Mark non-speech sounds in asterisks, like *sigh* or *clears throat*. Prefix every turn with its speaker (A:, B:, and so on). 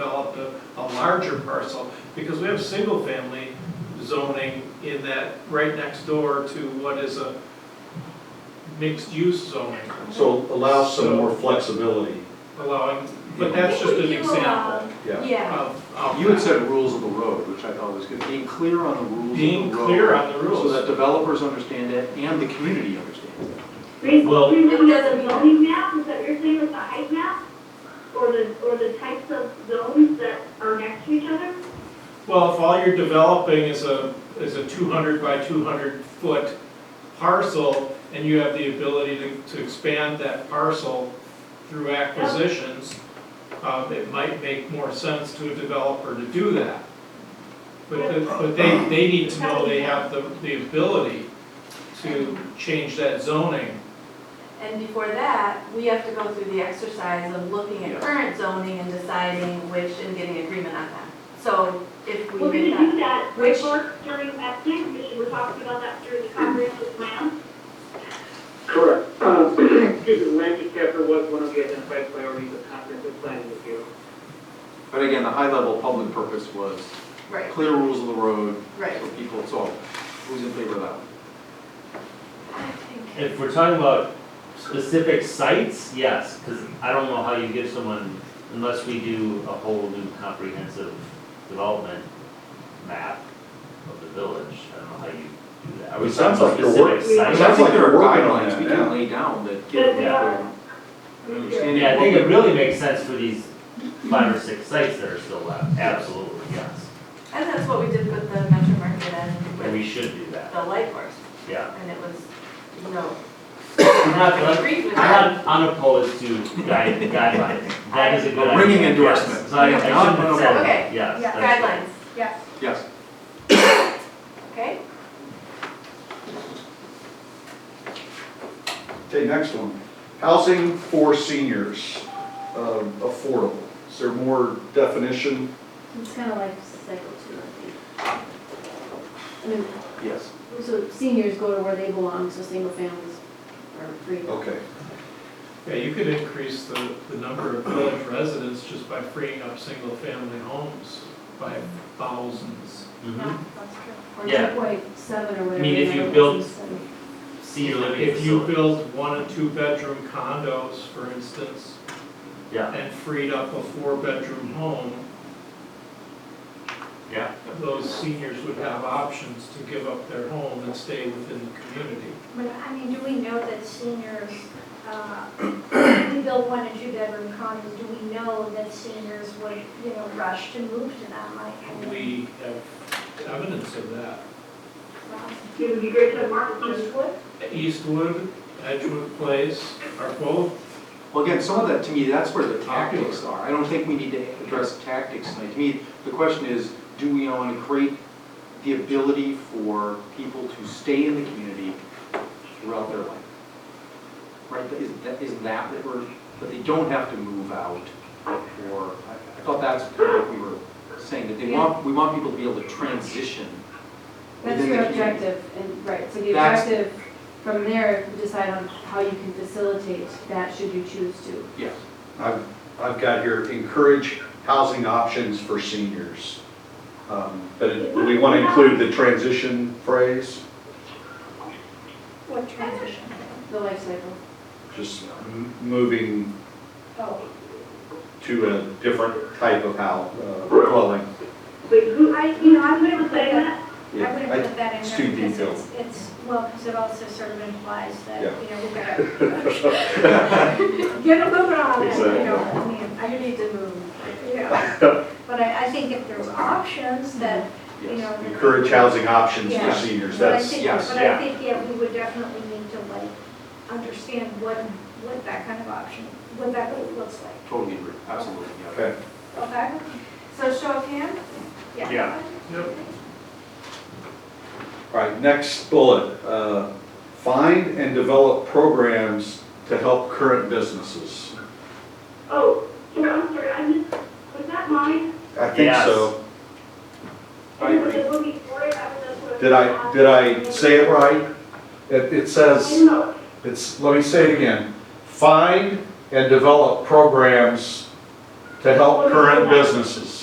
A: developed a, a larger parcel, because we have single-family zoning in that, right next door to what is a mixed-use zoning,
B: So allow some more flexibility,
A: allowing, but that's just an example
B: yeah.
C: Yeah,
A: of, of
D: You had
A: that.
D: said rules of the road, which I thought was good, being clear on the rules of the road.
A: Being clear on the
D: So that
A: rules,
D: developers understand it and the community understands it.
E: Well-
F: Basically, with the zoning map, is that what you're saying with the height map? Or the, or the types of zones that are next to each other?
A: well, if all you're developing is a, is a two hundred by two hundred foot parcel, and you have the ability to, to expand that parcel through acquisitions, um, it might make more sense to a developer to do that. But, the- but they, they need to know they have the, the ability to change that zoning.
C: and before that, we have to go through the exercise of looking
D: Yeah.
C: at current zoning and deciding which and getting agreement on that. So if we
F: We're
C: do
F: gonna do
C: that,
F: that,
C: Which-
F: which work during that next commission, we're talking about that during the comprehensive plan.
E: Correct. Uh, *clears throat* Excuse me, land use chapter was one of the identified priorities of comprehensive planning review.
D: But again, the high-level public purpose was
C: right,
D: clear rules of the road
C: right.
D: for people, so who's in favor of that? one?
C: I think-
G: If we're talking about specific sites, yes, because I don't know how you give someone, unless we do a whole new comprehensive development map of the village, I don't know how you do that. Are we
B: It sounds
G: talking about
B: like you're work-
G: specific
D: I
B: It
D: mean,
G: sites?
D: I
B: sounds
D: think
B: like
D: there are
B: we're working on
D: guidelines we
B: that,
D: can
B: yeah.
D: lay down that
F: But
D: give
F: we
G: Yeah.
F: are,
D: an understanding.
G: Yeah, I
D: of
G: think
D: what
G: it really makes sense for these five or six sites that are still left, absolutely, yes.
C: And that's what we did with the Metro Market and
G: And we
C: with
G: should do
C: the
G: that,
C: Lightworks,
G: yeah.
C: and it was, no.
G: I'm not,
C: I agreed with that.
G: I'm not unopposed to guide, guidelines, that is a good
D: A
G: idea.
D: ringing
G: yes.
D: endorsement.
G: So I, I shouldn't have said that,
C: Okay,
G: yes. that's right.
C: Guidelines,
D: the- Yes,
C: okay?
B: Okay, next one. Housing for seniors, um, affordable. Is there more definition?
H: It's kind of like cycle two, I think.
D: yes.
H: I mean, so seniors go to where they belong, so single families are free.
B: Okay.
A: Yeah, you could increase the, the number of village residents just by freeing up single-family homes by thousands.
G: Mhm.
H: Or
G: Yeah.
H: two point seven or whatever.
G: mean, if
H: the
G: you
H: number
G: build-
H: was, so-
G: senior living
A: If you
G: facility.
A: build one and two-bedroom condos, for instance,
G: Yeah,
A: and freed up a four-bedroom home,
G: yeah.
A: those seniors would have options to give up their home and stay within the community.
I: But I mean, do we know that seniors, uh, *coughs* we build one and two bedroom condos, do we know that seniors would, you know, rush to move to them? Like, I mean,
A: We have evidence of that.
I: um,
F: it would be great to have Mark,
I: Eastwood?
A: Eastwood, Edgewood Place are both,
D: Well, again, some of that, to me, that's where the
A: Popular.
D: tactics are. I don't think we need to address tactics tonight. To me, the question is, do we want to create the ability for people to stay in the community throughout their life? Right, that- is that, is that what we're, that they don't have to move out or, I I thought that's kind of what we were saying, that they want, we want people to be able to transition
H: That's
D: within
H: your
D: the community.
H: objective, and, right, so the
D: That's-
H: objective, from there, you decide on how you can facilitate that should you choose to.
D: Yes.
B: I've, I've got here, encourage housing options for seniors. Um, But it- do we want to include the transition phrase,
I: What transition?
H: The life cycle.
B: just m- moving
I: Oh,
B: to a different type of house, dwelling.
F: wait, who,
I: I, you know, I wouldn't put
F: say
I: that,
F: that?
I: I wouldn't put that in
B: it's
I: there.
B: too
I: because
B: detailed.
I: it's- It's, well, because it also sort of implies that,
B: Yeah.
I: you know, we've got to get a move on, it, you know, I mean, I need to move, you know. But I, I think if there's options that, you know. that-
B: Encourage housing options for
I: Yeah.
B: seniors,
I: But I
B: that's,
I: think,
D: yes,
I: but
G: yeah.
I: I think, yeah, we would definitely need to like, understand what, what that kind of option, what that really looks like,
D: Totally agree, absolutely, yeah.
B: okay.
I: okay?
C: So show of hands,
G: Yeah.
A: Yep.
B: All right, next bullet, uh, find and develop programs to help current businesses.
F: oh, sorry, I'm sorry, I missed, was that mine?
B: I think
G: Yes.
B: so.
D: I
F: It was
D: agree.
F: a little before it, I was just sort of-
B: Did I, did I say it right? It, it
F: I
B: says,
F: don't know,
B: it's, let me say it again. Find and develop programs to help current businesses.